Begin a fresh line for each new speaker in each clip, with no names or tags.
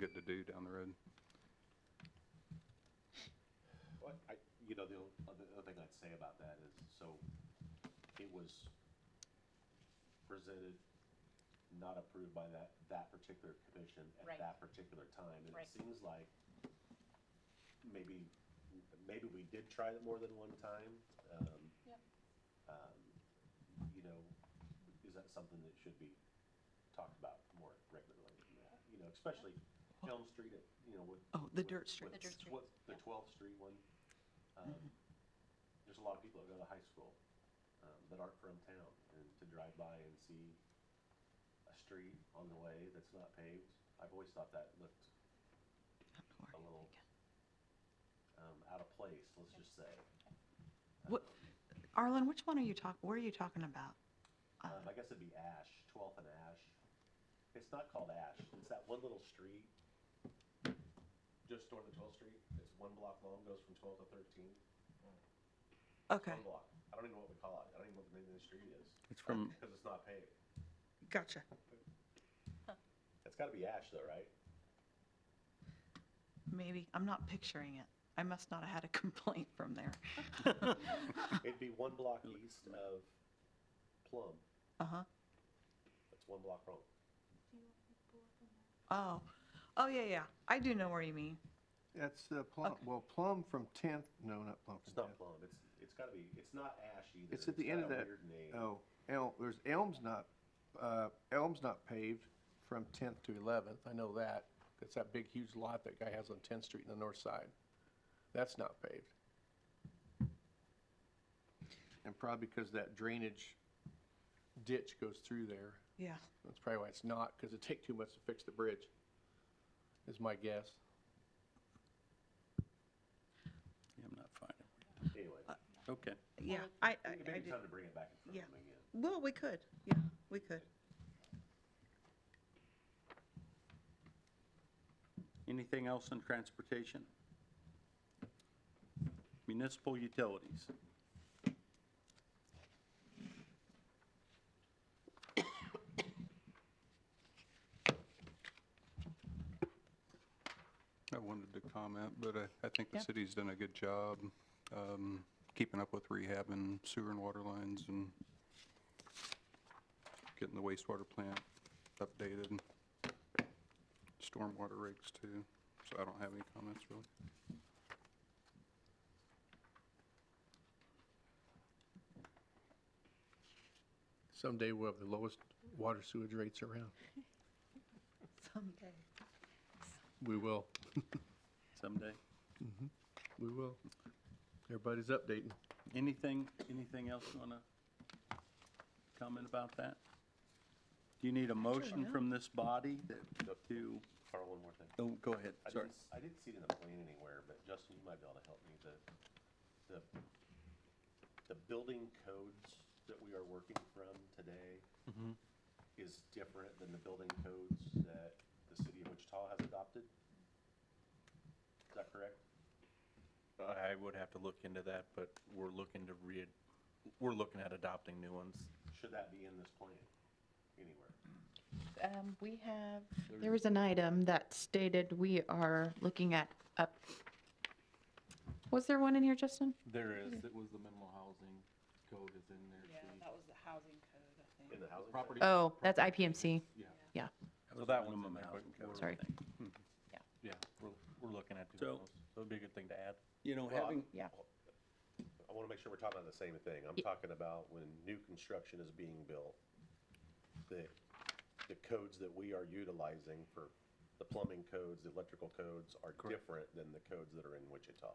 good to do down the road.
Well, I, you know, the o- other, other thing I'd say about that is, so it was presented, not approved by that, that particular commission at
Right.
that particular time. And
Right.
it seems like maybe, maybe we did try it more than one time. Um,
Yep.
um, you know, is that something that should be talked about more regularly? You know, especially Elm Street, you know, with.
Oh, the
with-
dirt street.
with
The dirt street,
twe- The
yeah.
12th Street one.
Mm-hmm.
Um, There's a lot of people that go to high school um, that aren't from town, and to drive by and see a street on the way that's not paved, I've always thought that looked a little um, out of place, let's just say. Um,
What, Arlen, which one are you talking, where are you talking about? uh,
Um, I guess it'd be Ash, 12th and Ash. It's not called Ash. It's that one little street just north of 12th Street. It's one block long, goes from 12 to 13.
Okay,
One block. I don't even know what we call it. I don't even know what the name of the street is
It's from,
because it's not paved.
gotcha.
It's got to be Ash though, right?
Maybe, I'm not picturing it. I must not have had a complaint from there.
It'd be one block east of Plum.
Uh-huh.
That's one block wrong.
Oh, oh, yeah, yeah. I do know where you mean.
That's uh, Plum, well, Plum from 10th, no, not Plum
It's
from
not
10th.
Plum. It's it's got to be. It's not Ash either.
It's at the end of
got a
that,
Weird name.
oh, Elm, there's Elm's not, uh, Elm's not paved from 10th to 11th, I know that. That's that big huge lot that guy has on 10th Street in the north side. That's not paved. And probably because that drainage ditch goes through there.
Yeah.
That's probably why it's not, because it'd take too much to fix the bridge, is my guess.
yeah, I'm not finding.
Anyway,
Okay.
Yeah, I, I,
maybe
I
time
do.
to bring it back in front
Yeah.
of them again.
Well, we could. Yeah, we could.
Anything else in transportation? Municipal utilities. I wanted to comment, but I, I think the
Yeah.
city's done a good job um, keeping up with rehab and sewer and water lines and getting the wastewater plant updated stormwater rigs too, so I don't have any comments really.
Someday we'll have the lowest water sewage rates around.
Someday.
We will,
Someday.
we will. Everybody's updating.
Anything, anything else you want to comment about that? Do you need a motion from this body that to,
Carl, one more thing.
oh, go ahead,
I
sorry.
didn't, s- I didn't see it in the plan anywhere, but Justin, you might be able to help me, the, the, the building codes that we are working from today is different than the building codes that the city of Wichita has adopted? Is that correct?
I would have to look into that, but we're looking to re, we're looking at adopting new ones.
Should that be in this plan anywhere?
Um, we have, there was an item that stated we are looking at up. Was there one in here, Justin?
There is, it was the minimal housing code is in there too.
was the housing code, I
In the housing?
Property-
Oh, that's IPMC.
Yeah,
Yeah,
so that one's in
Minimum
there, but
housing code.
we're-
sorry.
Yeah, we're, we're looking at
So-
doing those. So it'd be a good thing to add.
You know,
Well,
having,
Yeah.
I want to make sure we're talking about the same thing. I'm talking about when new construction is being built, the, the codes that we are utilizing for the plumbing codes, the electrical codes are different than the codes that are in Wichita.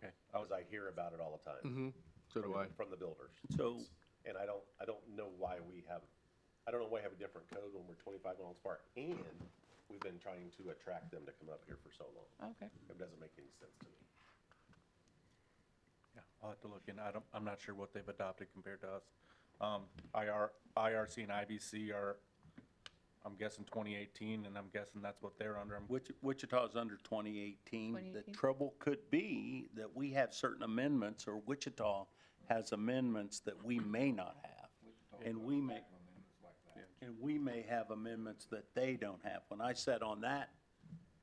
Okay.
Because I hear about it all the time.
Mm-hmm. So do I.
From the builders.
so,
And I don't, I don't know why we have, I don't know why we have a different code when we're twenty-five miles apart. And we've been trying to attract them to come up here for so long.
Okay.
It doesn't make any sense to me.
Yeah, I'll have to look in. I don't, I'm not sure what they've adopted compared to us. Um, IR, IRC and IBC are, I'm guessing 2018, and I'm guessing that's what they're under. I'm
Wich- Wichita's under 2018. The
2018.
trouble could be that we have certain amendments, or Wichita has amendments that we may not have. And we may, and we may have amendments that they don't have. When I sat on that